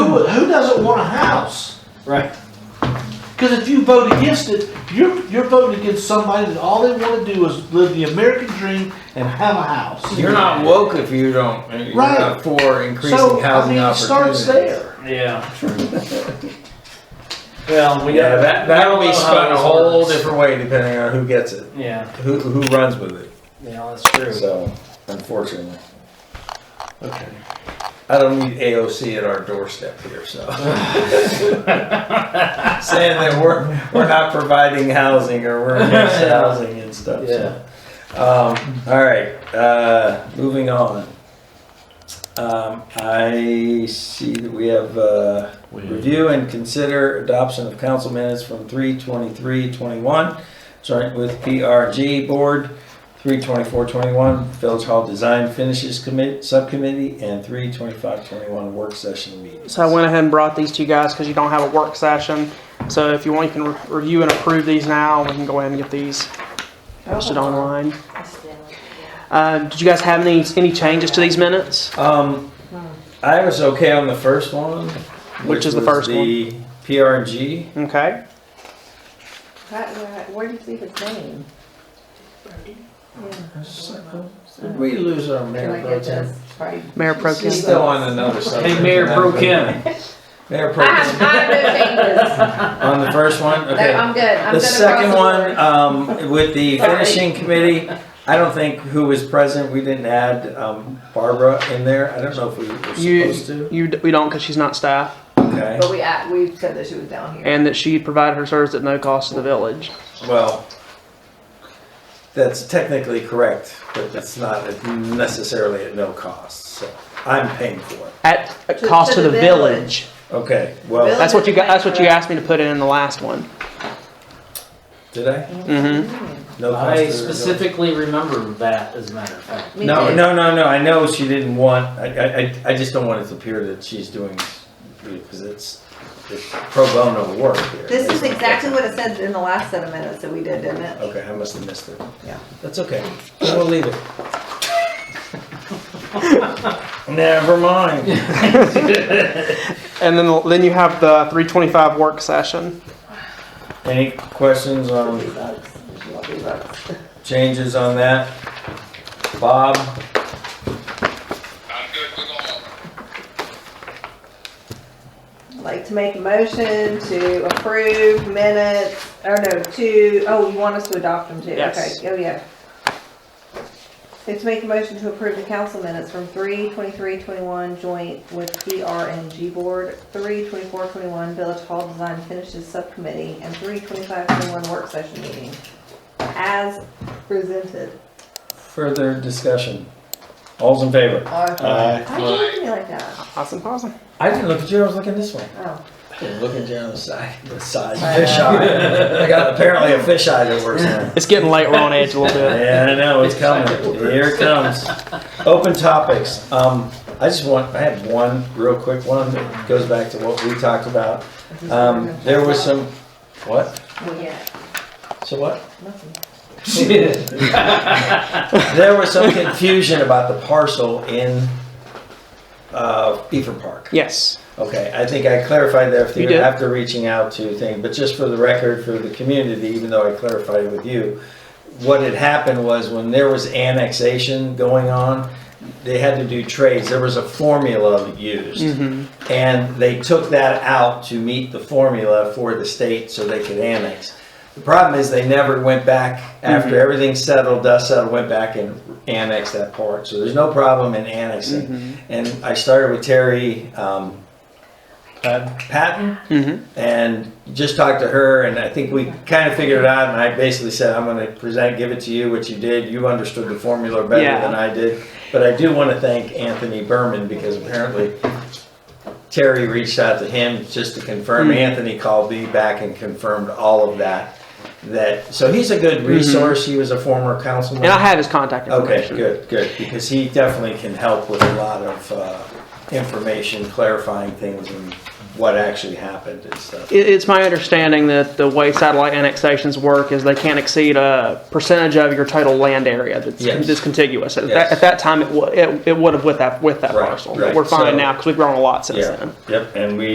Right. Because if you vote against it, you're, you're voting against somebody that all they want to do is live the American dream and have a house. You're not woke if you don't, you're Right. not for increasing So, I housing mean, it opportunities. starts there. Yeah. Well, we Yeah, got. that, that'll we be don't know spun how a this whole works. different way depending on who gets it, Yeah, who, who runs with it, yeah, that's true. so, unfortunately. Okay. I don't need AOC at our doorstep here, so. Saying that we're, we're not providing housing or we're against housing and stuff, Yeah. so. Um, all right, uh, moving on. Um, I see that we have, uh, review and consider adoption of council minutes from three twenty-three twenty-one, joint with PRG Board, three twenty-four twenty-one, Village Hall Design Finishes Commit, Subcommittee, and three twenty-five twenty-one Work Session Meetings. So I went ahead and brought these to you guys because you don't have a work session. So if you want, you can re- review and approve these now. We can go ahead and get these posted Oh. online. Uh, did you guys have any, any changes to these minutes? Um, I was okay on the first one. Which is the was first one? The PRG. Okay. Where did you leave his name? Did we lose our Can I mayor pro get tem? this? Sorry. Mayor Pro Tem. He's still on another subject. Hey, Mayor Pro Kim, Mayor pro I have, tem. I have no changes. On the first one, No, okay. I'm good. I'm The good across second the one, board. um, with the Sorry. finishing committee, I don't think who was present, we didn't add, um, Barbara in there. I don't know if we were You, supposed to. you, d- we don't because she's not staff Okay, But we, act- we said that she was down here. and that she provided her service at no cost to the village. well, that's technically correct, but it's not necessarily at no cost, so I'm paying for it. At a To- cost to to the the village. Okay, well, That's what you got, that's what you asked me to put in in the last one. did I? Mm-hmm. I No cost to the village. specifically remember that, as a matter of fact. Me No, too. no, no, no, I know she didn't want, I, I, I- I just don't want it to appear that she's doing, because it's, it's pro bono work here. This is exactly what it said in the last set of minutes that we did, didn't it? Okay, I must have missed it. Yeah. That's okay. We'll leave it. Never mind. And then, then you have the three twenty-five work session. Any questions Three on bucks. There's a three bucks. changes on that? Bob, I'm good with all. I'd Like to make a motion to approve minutes, or no, to, oh, you want us to adopt them too? Yes. Okay, oh, yeah. Like to make a motion to approve the council minutes from three twenty-three twenty-one joint with PR and G Board, three twenty-four twenty-one Village Hall Design Finishes Subcommittee, and three twenty-five twenty-one Work Session Meeting, as presented. further discussion? All's in favor? Uh, Why do you look at me like that? Awesome, awesome. I didn't look at you, I was looking this way. Oh, Looking down the side, the side, I fish know. eye. I got apparently a fish eye that works now. It's getting late, we're on edge a little bit. Yeah, I know, it's coming. Here it comes. Open topics. Um, I just want, I have one real quick one that goes back to what we talked about. Um, there was some, what? well, yeah, So what? nothing. There was some confusion about the parcel in, uh, Beaver Park. Yes. Okay, I think I clarified that You after, did. after reaching out to thing, but just for the record, for the community, even though I clarified it with you, what had happened was when there was annexation going on, they had to do trades, there was a formula used. Mm-hmm. And they took that out to meet the formula for the state so they could annex. The problem is they never went back, Mm-hmm. after everything settled, dust settled, went back and annexed that part. So there's no problem in annexing. Mm-hmm. And I started with Terry um, uh, Patton Mm-hmm. and just talked to her and I think we kind of figured it out and I basically said, I'm gonna present, give it to you, what you did, you understood the formula better Yeah. than I did. But I do wanna thank Anthony Berman because apparently Terry reached out to him just to confirm, Hmm. Anthony called me back and confirmed all of that. That, so he's a good resource, he was a former councilman. And Mm-hmm. I have his contact Okay, information. good, good, because he definitely can help with a lot of uh, information, clarifying things and what actually happened and stuff. It, it's my understanding that the way satellite annexations work is they can't exceed a percentage of your total land area that's, Yes. that's contiguous. At, Yes. that, at that time, it, w- it, it would have with that with that Right, parcel. right. But we're fine So- now because we've grown a lot since Yeah, then. yep, and we